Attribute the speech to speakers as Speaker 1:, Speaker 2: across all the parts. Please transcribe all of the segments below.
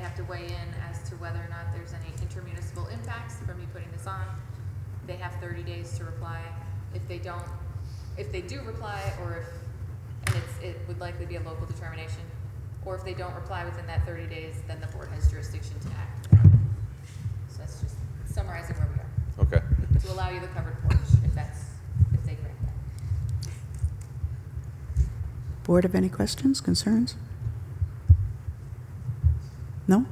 Speaker 1: have to weigh in as to whether or not there's any intermunicipal impacts from me putting this on. They have thirty days to reply. If they don't, if they do reply, or if, and it's, it would likely be a local determination, or if they don't reply within that thirty days, then the board has jurisdiction to act. So that's just summarizing where we are,
Speaker 2: Okay.
Speaker 1: to allow you the covered porch, if that's, if they grant that.
Speaker 3: Board have any questions, concerns? No?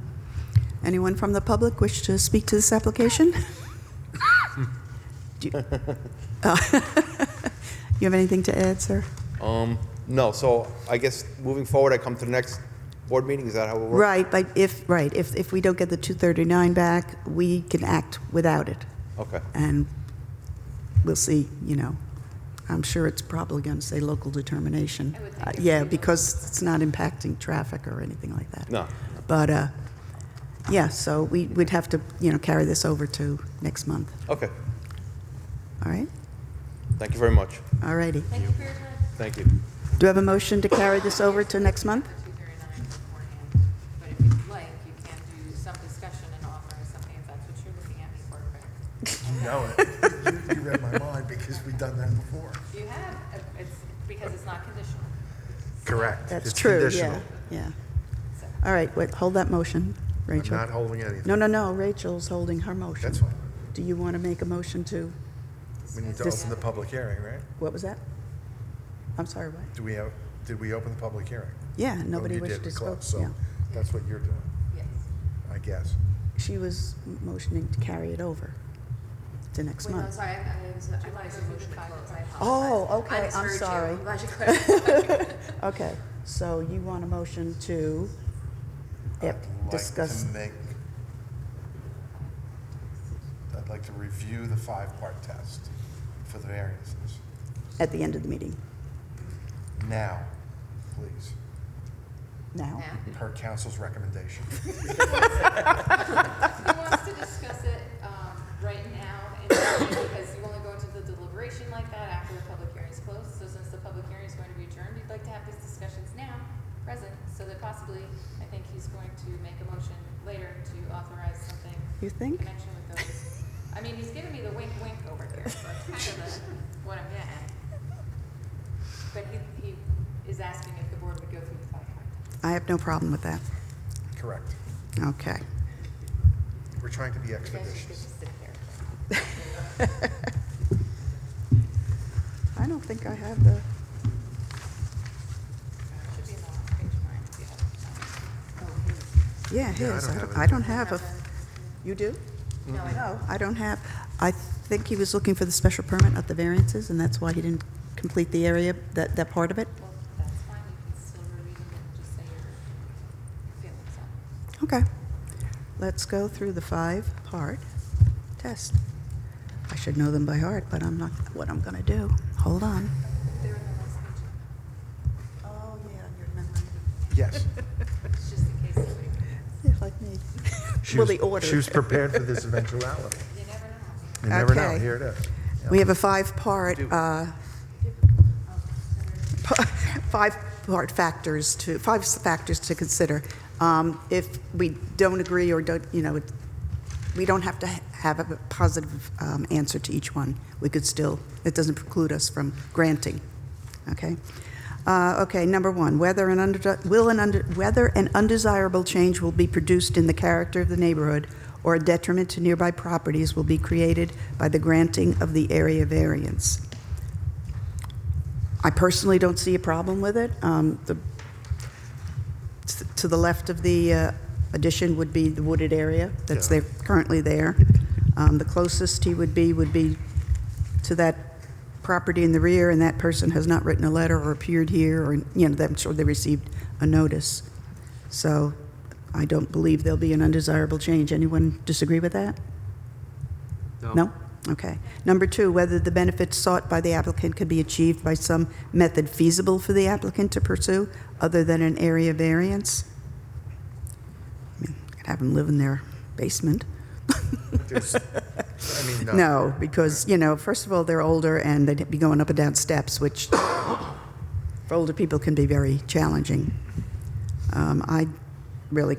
Speaker 3: Anyone from the public wish to speak to this application? Do You Oh. You have anything to add, sir?
Speaker 2: Um, no, so I guess moving forward, I come to the next board meeting, is that how it works?
Speaker 3: Right, but if, right, if, if we don't get the 239 back, we can act without it.
Speaker 2: Okay,
Speaker 3: And we'll see, you know. I'm sure it's probably going to say local determination.
Speaker 1: I would think
Speaker 3: Uh,
Speaker 1: it would
Speaker 3: Yeah,
Speaker 1: be local.
Speaker 3: because it's not impacting traffic or anything like that.
Speaker 2: no,
Speaker 3: But, uh, yeah, so we would have to, you know, carry this over to next month,
Speaker 2: okay,
Speaker 3: all right?
Speaker 2: thank you very much,
Speaker 3: All righty.
Speaker 1: Thank you for your time.
Speaker 2: thank you.
Speaker 3: Do I have a motion to carry this over to next month?
Speaker 1: for 239 beforehand, but if you'd like, you can do some discussion and offer something if that's what you're looking at me for. but
Speaker 4: You know it. You- You read my mind because we've done that before.
Speaker 1: You have, uh, it's because it's not conditional.
Speaker 4: Correct.
Speaker 3: That's
Speaker 4: It's
Speaker 3: true, yeah,
Speaker 4: conditional.
Speaker 3: yeah.
Speaker 1: So-
Speaker 3: All right, wait, hold that motion,
Speaker 4: I'm
Speaker 3: Rachel.
Speaker 4: not holding anything.
Speaker 3: No, no, no, Rachel's holding her motion.
Speaker 4: That's fine.
Speaker 3: Do you want to make a motion to,
Speaker 4: We need to
Speaker 3: Dis-
Speaker 4: open the public hearing, right?
Speaker 3: what was that? I'm sorry, what?
Speaker 4: Do we have, did we open the public hearing?
Speaker 3: Yeah,
Speaker 4: No,
Speaker 3: nobody
Speaker 4: you
Speaker 3: wished
Speaker 4: did.
Speaker 3: to
Speaker 4: We
Speaker 3: speak,
Speaker 4: closed, So
Speaker 3: yeah.
Speaker 4: that's what you're doing,
Speaker 1: Yes.
Speaker 4: I guess.
Speaker 3: She was motioning to carry it over to next
Speaker 5: Wait, no,
Speaker 3: month.
Speaker 5: sorry, I, I was, I wanted to motion to close, I apologize.
Speaker 3: Oh, okay,
Speaker 5: I
Speaker 3: I'm
Speaker 5: misheard you.
Speaker 3: sorry.
Speaker 5: I'm glad you clarified.
Speaker 3: Okay, so you want a motion to eh,
Speaker 4: I'd like to
Speaker 3: discuss,
Speaker 4: make- I'd like to review the five-part test for the variances.
Speaker 3: at the end of the meeting,
Speaker 4: Now, please,
Speaker 3: now?
Speaker 1: Now,
Speaker 4: per council's recommendation.
Speaker 1: he wants to discuss it um, right now, and because you only go into the deliberation like that after the public hearing is closed. So since the public hearing is going to be adjourned, we'd like to have these discussions now, present, so that possibly, I think he's going to make a motion later to authorize something
Speaker 3: You think?
Speaker 1: connection with those. I mean, he's giving me the wink wink over here, so it's kind of the, what I'm getting at. But he, he is asking if the board would go through the five point.
Speaker 3: I have no problem with that.
Speaker 4: Correct.
Speaker 3: Okay.
Speaker 4: We're trying to be
Speaker 1: You guys just get
Speaker 4: expeditious.
Speaker 1: to sit there.
Speaker 3: I don't think I have the,
Speaker 1: Should be in the last page of mine, if you have it.
Speaker 3: yeah,
Speaker 4: Yeah, I
Speaker 3: his.
Speaker 4: don't have it.
Speaker 3: I don't have a, you do?
Speaker 1: No, I
Speaker 3: No, I don't have, I think he was looking for the special permit, not the variances, and that's why he didn't complete the area, that, that part of it?
Speaker 1: Well, that's fine, you can still reread it and just say your feelings on it.
Speaker 3: Okay. Let's go through the five-part test. I should know them by heart, but I'm not, what I'm going to do. Hold on.
Speaker 1: They're in the last page,
Speaker 3: Oh, yeah, your memory.
Speaker 4: Yes.
Speaker 1: it's just in case somebody,
Speaker 3: Yeah, like me.
Speaker 4: She
Speaker 3: Well,
Speaker 4: was-
Speaker 3: the order.
Speaker 4: She was prepared for this eventuality.
Speaker 1: you never know.
Speaker 4: You never know,
Speaker 3: Okay.
Speaker 4: here it is.
Speaker 3: We have a five-part, uh, pa- five-part factors to, five s- factors to consider. Um, If we don't agree or don't, you know, it- we don't have to ha- have a positive um, answer to each one. We could still, it doesn't preclude us from granting, okay? Uh, Okay, number one, whether an under, will an under, whether an undesirable change will be produced in the character of the neighborhood or a detriment to nearby properties will be created by the granting of the area variance. I personally don't see a problem with it. Um, the- t- To the left of the uh, addition would be the wooded area that's
Speaker 4: Yeah.
Speaker 3: there, currently there. Um, The closest he would be would be to that property in the rear, and that person has not written a letter or appeared here, or, you know, I'm sure they received a notice. So I don't believe there'll be an undesirable change. Anyone disagree with that? No? Okay. Number two, whether the benefits sought by the applicant could be achieved by some method feasible for the applicant to pursue other than an area variance? I mean, could have them live in their basement.
Speaker 4: There's- I mean,
Speaker 3: No, because, you know, first of all, they're older and they'd be going up and down steps, which for older people can be very challenging. Um, I really